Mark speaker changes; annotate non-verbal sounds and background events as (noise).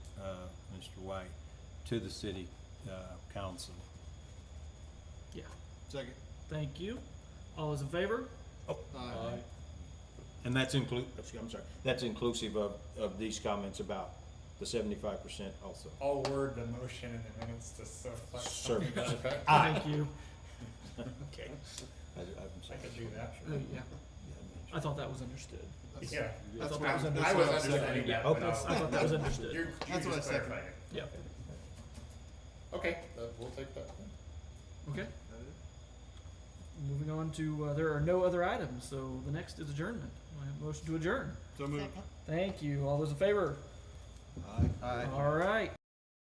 Speaker 1: uh,
Speaker 2: Mr. White, to the city uh, council.
Speaker 3: Yeah,
Speaker 4: Second.
Speaker 3: thank you. All those in favor?
Speaker 4: Aye.
Speaker 2: And that's include,
Speaker 1: I'm sorry, that's inclusive of, of these comments about the seventy-five percent also.
Speaker 5: I'll word the motion in the minutes to reflect (laughs) something to
Speaker 1: Sure.
Speaker 5: that effect.
Speaker 3: Thank you.
Speaker 1: Okay. I, I'm
Speaker 5: I
Speaker 1: sorry.
Speaker 5: could do that.
Speaker 3: Uh,
Speaker 4: Mm.
Speaker 3: yeah, I thought that was understood.
Speaker 5: Yeah.
Speaker 4: That's
Speaker 5: what
Speaker 4: what I was
Speaker 5: I was understanding
Speaker 4: understanding.
Speaker 5: that.
Speaker 1: Okay.
Speaker 5: but I'll-
Speaker 3: I thought that was understood.
Speaker 5: Oh. (laughs) You're, you
Speaker 4: That's what I
Speaker 5: just
Speaker 4: said.
Speaker 5: clarified it.
Speaker 3: Yeah,
Speaker 5: Okay, that- we'll take that. then.
Speaker 3: okay. Moving on to, uh, there are no other items, so the next is adjournment. Do I have a motion to adjourn.
Speaker 4: So moved.
Speaker 3: Thank you. All those in favor?
Speaker 1: Aye.
Speaker 4: Aye.
Speaker 3: All right.